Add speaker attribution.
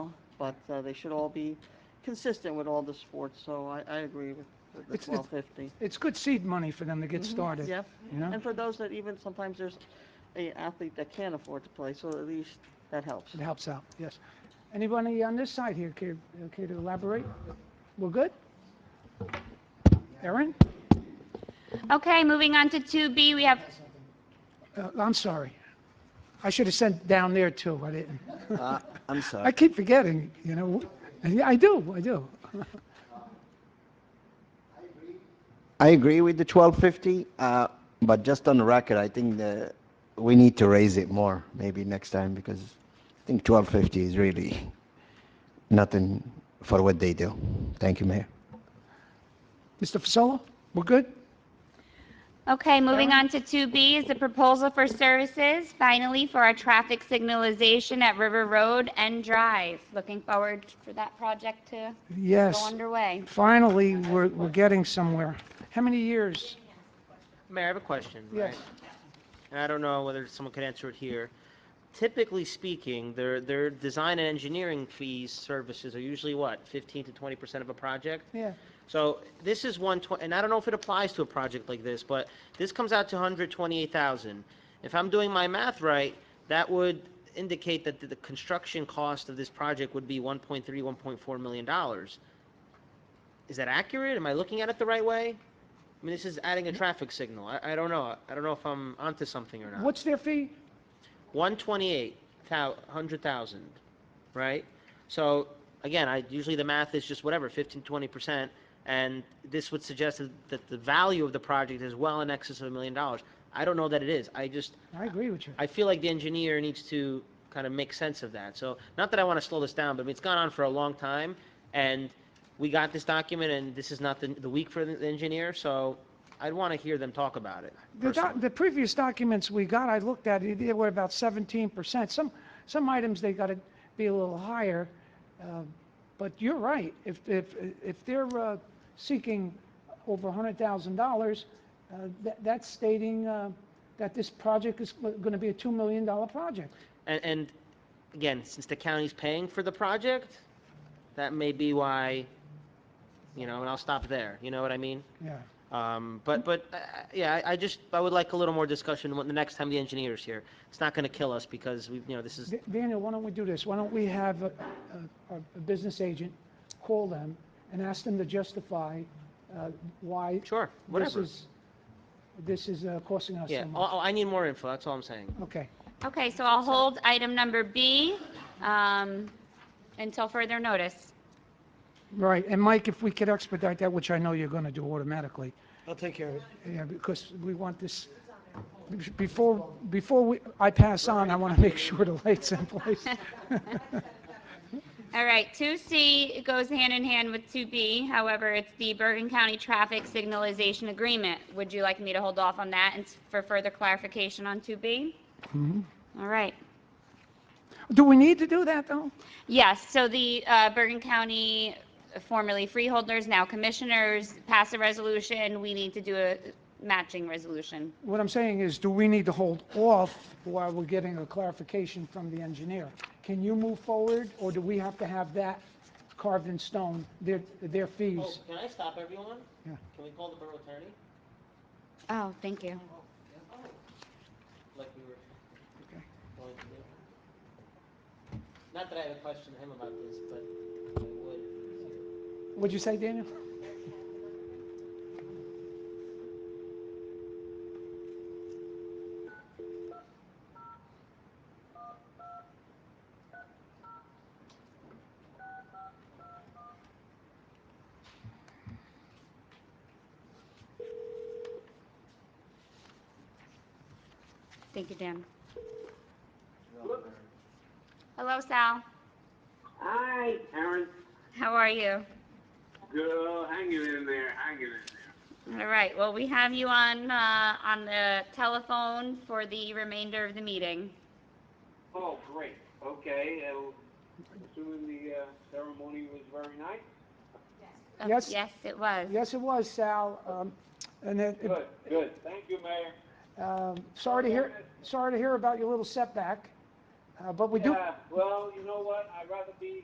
Speaker 1: but uh, they should all be consistent with all the sports, so I, I agree with the- the
Speaker 2: It's- it's-
Speaker 1: twelve fifty.
Speaker 2: It's good seed money for them to get started.
Speaker 1: Mm-hmm. Yeah,
Speaker 2: You know?
Speaker 1: and for those that even, sometimes there's a athlete that can't afford to play, so at least that helps.
Speaker 2: It helps out, yes. Anybody on this side here care, care to elaborate? We're good? Erin?
Speaker 3: Okay, moving on to 2B, we have,
Speaker 2: Uh, I'm sorry. I should have sent down there too, I didn't.
Speaker 4: Uh, I'm
Speaker 2: I
Speaker 4: sorry.
Speaker 2: keep forgetting, you know, yeah, I do, I do.
Speaker 4: I agree with the 1250, uh, but just on the record, I think that we need to raise it more maybe next time because I think 1250 is really nothing for what they do. Thank you, Mayor.
Speaker 2: Mr. Fasolo, we're good?
Speaker 3: okay, moving on to 2B is the proposal for services, finally, for our traffic signalization at River Road and Drive. Looking forward for that project to go
Speaker 2: Yes.
Speaker 3: underway.
Speaker 2: Finally, we're, we're getting somewhere. How many years?
Speaker 5: Mayor, I have a question. right?
Speaker 2: Yes.
Speaker 5: And I don't know whether someone could answer it here. Typically speaking, their, their design and engineering fees services are usually what, 15 to 20% of a project?
Speaker 2: Yeah.
Speaker 5: So this is one twenty, and I don't know if it applies to a project like this, but this comes out to hundred twenty-eight thousand. If I'm doing my math right, that would indicate that the, the construction cost of this project would be one point three, one point four million dollars. Is that accurate? Am I looking at it the right way? I mean, this is adding a traffic signal. I, I don't know. I don't know if I'm onto something or not.
Speaker 2: What's their fee?
Speaker 5: One twenty-eight thou, hundred thousand, right? So, again, I, usually the math is just whatever, fifteen, twenty percent, and this would suggest that- that the value of the project is well in excess of a million dollars. I don't know that it is, I just,
Speaker 2: I agree with you.
Speaker 5: I feel like the engineer needs to kind of make sense of that. So, not that I want to slow this down, but I mean, it's gone on for a long time, and we got this document, and this is not the, the week for the the engineer, so I'd want to hear them talk about it.
Speaker 2: The, doc-
Speaker 5: personally.
Speaker 2: the previous documents we got, I looked at, it they were about seventeen percent. Some, some items, they gotta be a little higher. uh, But you're right, if, if, if they're uh, seeking over a hundred thousand dollars, uh, that's stating uh, that this project is gonna be a two million dollar project.
Speaker 5: And, and again, since the county's paying for the project, that may be why, you know, and I'll stop there, you know what I mean?
Speaker 2: Yeah.
Speaker 5: Um, but, but, uh, yeah, I, I just, I would like a little more discussion when the next time the engineer's here. It's not gonna kill us because we, you know, this is,
Speaker 2: Da- Daniel, why don't we do this? Why don't we have a, a, a business agent call them and ask them to justify uh, why
Speaker 5: sure,
Speaker 2: this
Speaker 5: whatever.
Speaker 2: is, this is uh, costing us
Speaker 5: Yeah,
Speaker 2: so much.
Speaker 5: oh, I need more info, that's all I'm saying.
Speaker 2: Okay.
Speaker 3: Okay, so I'll hold item number B um, until further notice.
Speaker 2: Right, and Mike, if we could expedite that, which I know you're going to do automatically,
Speaker 6: I'll take care of it.
Speaker 2: yeah, because we want this, before, before we, I pass on, I want to make sure the light's in place.
Speaker 3: All right, 2C goes hand in hand with 2B, however, it's the Bergen County Traffic Signalization Agreement. Would you like me to hold off on that and s- for further clarification on 2B? All right.
Speaker 2: Do we need to do that, though?
Speaker 3: Yes, so the uh, Bergen County, uh, formerly freeholders, now commissioners, pass a resolution. We need to do a matching resolution.
Speaker 2: What I'm saying is, do we need to hold off while we're getting a clarification from the engineer? Can you move forward, or do we have to have that carved in stone, their, their fees?
Speaker 5: Oh, can I stop everyone?
Speaker 2: Yeah.
Speaker 5: Can we call the borough attorney?
Speaker 3: Oh, thank you.
Speaker 5: Like we were going to do? Not that I have a question to him about this, but I would.
Speaker 2: What'd you say, Daniel?
Speaker 3: Thank you, Dan. Hello, Sal.
Speaker 7: Hi, Aaron.
Speaker 3: How are you?
Speaker 7: Girl, hanging in there, hanging in there.
Speaker 3: All right, well, we have you on, uh, on the telephone for the remainder of the meeting.
Speaker 7: Oh, great. Okay, and assuming the uh, ceremony was very nice.
Speaker 3: Uh,
Speaker 2: Yes.
Speaker 3: Yes, it was.
Speaker 2: Yes, it was, Sal, um, and it, it-
Speaker 7: Good, good. Thank you, Mayor.
Speaker 2: Um, Sorry to hear, sorry to hear about your little setback, uh, but we do,
Speaker 7: Yeah, well, you know what? I'd rather be